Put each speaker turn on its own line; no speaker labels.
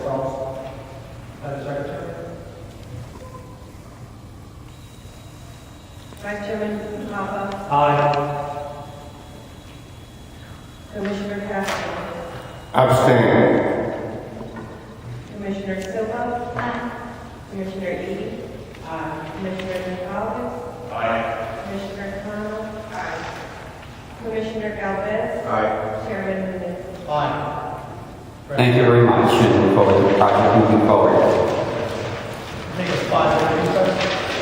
Vice Chairman Papa,
Aye.
Commissioner Castro,
Abstain.
Commissioner Silva, Commissioner Eby, Commissioner Gonzalez,
Aye.
Commissioner Connell, Commissioner Galvez,
Aye.
Chairman Hernandez.
Aye.
Thank you very much, and look forward to the project moving forward.
I think it's five, right?